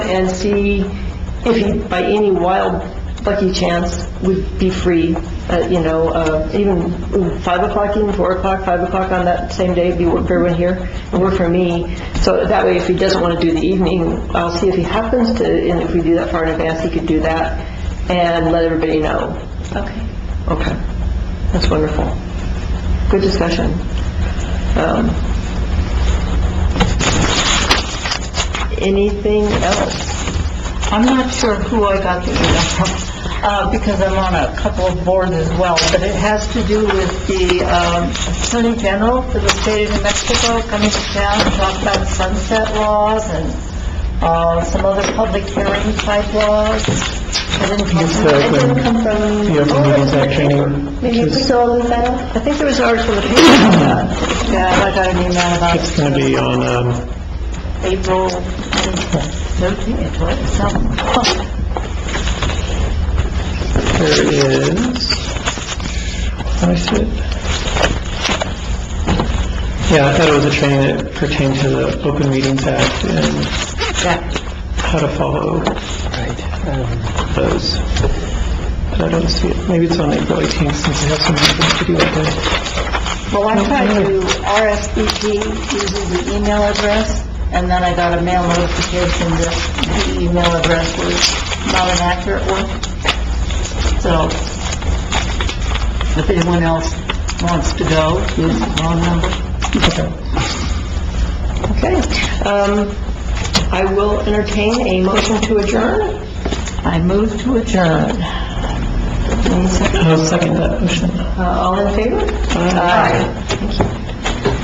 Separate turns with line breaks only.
and see if he, by any wild lucky chance, would be free, uh, you know, uh, even ooh, 5 o'clock, even 4 o'clock, 5 o'clock on that same day, be work for everyone here, and work for me. So that way, if he doesn't want to do the evening, I'll see if he happens to, and if we do that far in advance, he could do that, and let everybody know.
Okay.
Okay, that's wonderful. Good discussion. Um, Anything else?
I'm not sure who I got the email from, uh, because I'm on a couple of boards as well, but it has to do with the um, Attorney General for the state of New Mexico coming to town to talk about sunset laws and uh, some other public hearing type laws. It didn't come
Yes,
from-
uh,
it didn't come from...
The open meetings act training,
Maybe you
is-
saw it, Lisa?
I think there was an article in the paper about that.
Yeah, I got an email about
it's going to be on, um,
April 13th, what, something.
there is, I see it. Yeah, I thought it was a training that pertained to the Open Meetings Act and
Yeah.
how to follow those. But I don't see it, maybe it's on April 18th since we have some meetings to do that day.
Well, I tried to RSVP using the email address, and then I got a mail notification that the email address was not an accurate one. So if anyone else wants to go, use the phone number.
Okay. Um, I will entertain a motion to adjourn.
I move to adjourn.
I'll second that motion.
Uh, All in favor? Aye. Thank you.